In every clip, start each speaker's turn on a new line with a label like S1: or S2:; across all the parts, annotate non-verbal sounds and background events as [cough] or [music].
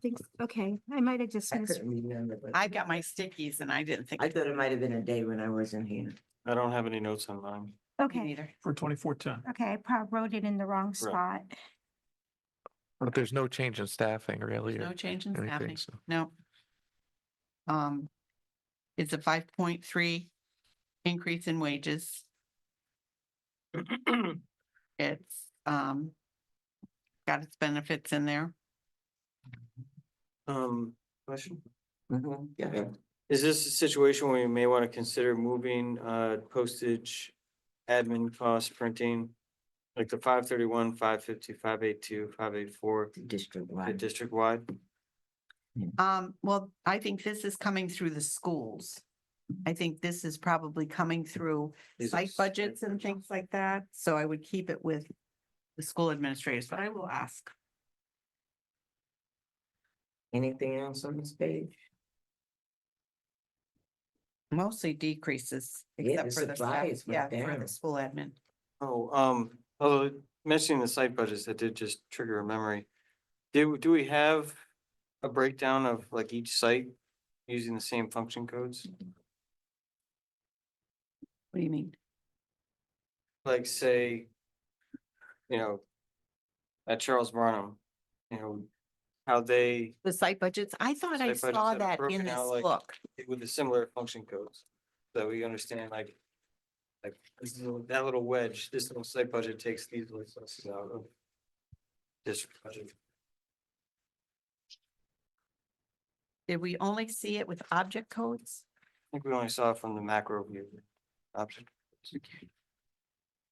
S1: think, okay, I might have just
S2: I
S1: missed.
S2: couldn't remember, but
S3: I've got my stickies and I didn't think.
S2: I thought it might have been a day when I wasn't here.
S4: I don't have any notes on mine.
S3: Me
S1: Okay,
S3: neither.
S5: for twenty-four ten.
S1: okay, I probably wrote it in the wrong spot.
S6: But there's no change in staffing really.
S3: No
S6: or
S3: change in staffing.
S6: anything, so-
S3: No. Um, it's a five point three increase in wages. It's, um, got its benefits in there.
S4: Um, question?
S3: Mm-hmm,
S2: Mhm, Yeah,
S4: Is this a situation where you may want to consider moving uh postage, admin cost printing? Like the five thirty-one, five fifty, five eight two, five eight four,
S2: district
S4: the
S2: wide.
S4: district wide?
S3: Um, well, I think this is coming through the schools. I think this is probably coming through
S4: These are
S3: site
S4: site
S3: budgets and things like that, so I would keep it with the school administrators, but I will ask.
S2: Anything else on this page?
S3: Mostly decreases,
S2: Yeah,
S3: except
S2: the
S3: for the, staff-
S2: supplies
S3: yeah,
S2: went
S3: for the
S2: down.
S3: school admin.
S4: Oh, um, although mentioning the site budgets, that did just trigger a memory. Do, do we have a breakdown of like each site using the same function codes?
S3: What do you mean?
S4: Like say, you know, at Charles Barnum, you know, how they
S3: The site budgets, I thought I
S4: Site budgets
S3: saw
S4: that are
S3: that in
S4: broken
S3: this
S4: out like-
S3: book.
S4: with the similar function codes. So we understand like, like this little, that little wedge, this little site budget takes these resources out of district budget.
S3: Did we only see it with object codes?
S4: I think we only saw it from the macro view. Option.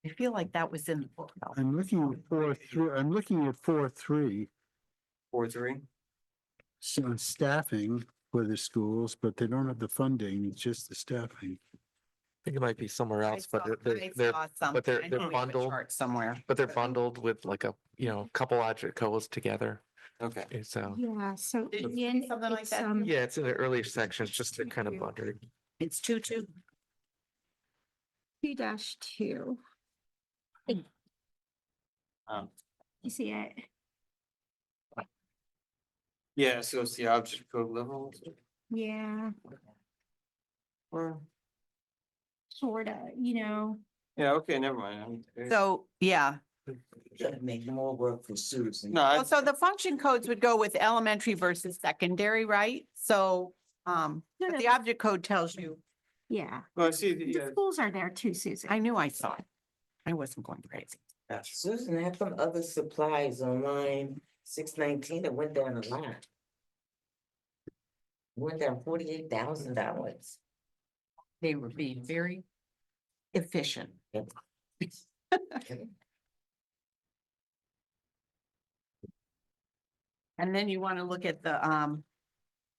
S3: I feel like that was in the book. though.
S7: I'm looking at four, three, I'm looking at four, three,
S4: Four, three.
S7: so staffing for the schools, but they don't have the funding, it's just the staffing.
S6: I think it might be somewhere
S3: I
S6: else, but
S3: saw-
S6: they're-
S3: I
S6: they're, they're,
S3: saw some-
S6: but they're-
S3: I
S6: they're
S3: know we have a
S6: bundled.
S3: chart Somewhere.
S6: but they're bundled with like a, you know,
S3: Mm-hmm.
S6: couple object codes together.
S4: Okay.
S6: and So,
S1: Yeah, so.
S3: Oh. Did you
S1: in
S3: see
S1: the end,
S3: something like
S1: it's,
S3: that,
S1: um,
S6: yeah, it's in the earlier sections, just to kind of
S1: Thank you.
S6: bundle.
S3: It's two, two.
S1: Two dash two,
S4: Um,
S1: you see it?
S4: yeah, so it's the object code level.
S1: Yeah,
S4: or-
S1: sorta, you know,
S4: Yeah, okay, never mind. I'm-
S3: So, yeah,
S2: Gotta make more work for Susan.
S4: No, I,
S3: Well, so the function codes would go with elementary versus secondary, right? So, um,
S1: No,
S3: but
S1: no.
S3: the object code tells you,
S1: yeah.
S4: well, I see, the, uh,
S1: The
S4: yeah,
S1: schools are there too, Susan.
S3: I knew I saw it. I wasn't going crazy.
S4: yes.
S2: Susan, how come other supplies on line six nineteen, it went down a lot? Went down forty-eight thousand
S3: [laughs]
S2: dollars.
S3: They were being very efficient. And then you want to look at the, um,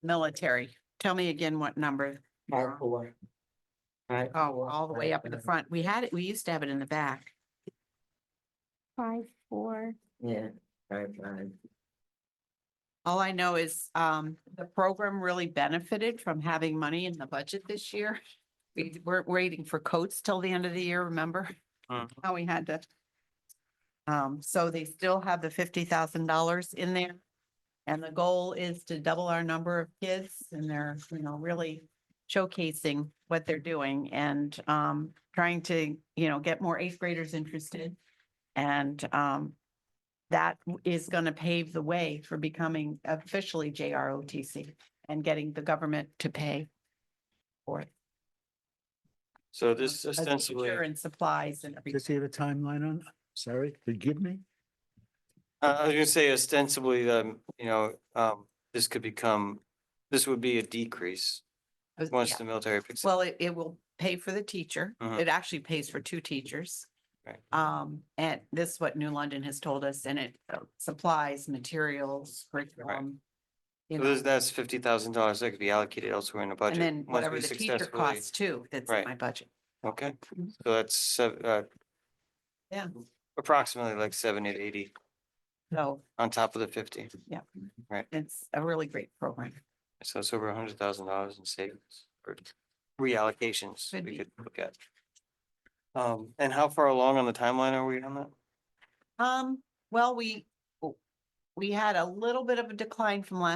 S3: military. Tell me again what number. you were on.
S2: Hardcore.
S3: Oh, all the way up in the front. We had it, we used to have it in the back.
S1: Five, four,
S2: Yeah, five, five.
S3: All I know is, um, the program really benefited from having money in the budget this year. We weren't waiting for coats till the end of the year, remember?
S4: Mhm.
S3: [laughs] How we had to. Um, so they still have the fifty thousand dollars in there. And the goal is to double our number of kids and they're, you know, really showcasing what they're doing and, um, trying to, you know, get more eighth graders interested. And, um, that w- is going to pave the way for becoming officially JROTC and getting the government to pay for it.
S4: So
S3: uh,
S4: this
S3: as
S4: ostensibly,
S3: secure
S4: uh,
S3: And supplies and
S7: Does
S3: everything.
S7: he have a timeline on, sorry, forgive me?
S4: I was gonna say ostensibly, um, you know, um, this could become, this would be a decrease
S3: Uh,
S4: once
S3: yeah.
S4: the military picks. up.
S3: Well, it, it will pay for the teacher.
S4: Mhm.
S3: It actually pays for two teachers.
S4: Right.
S3: Um, and this is what New London has told us, and it uh, supplies, materials, curriculum. you
S4: So
S3: know,
S4: this- That's fifty thousand dollars that could be allocated elsewhere in the budget.
S3: And then
S4: once
S3: whatever
S4: we
S3: the teacher
S4: successfully-
S3: costs too, that's in
S4: Right.
S3: my budget.
S4: Okay,
S3: Mhm.
S4: so that's, sev- uh.
S3: Yeah.
S4: Approximately like seventy to eighty
S3: So
S4: on top of the fifty.
S3: it's a really great program.
S4: So it's over a hundred thousand dollars in savings or reallocations
S3: Could
S4: we
S3: be.
S4: could look at. Um, and how far along on the timeline are we on that?
S3: Um, well, we, we had a little bit of a decline from last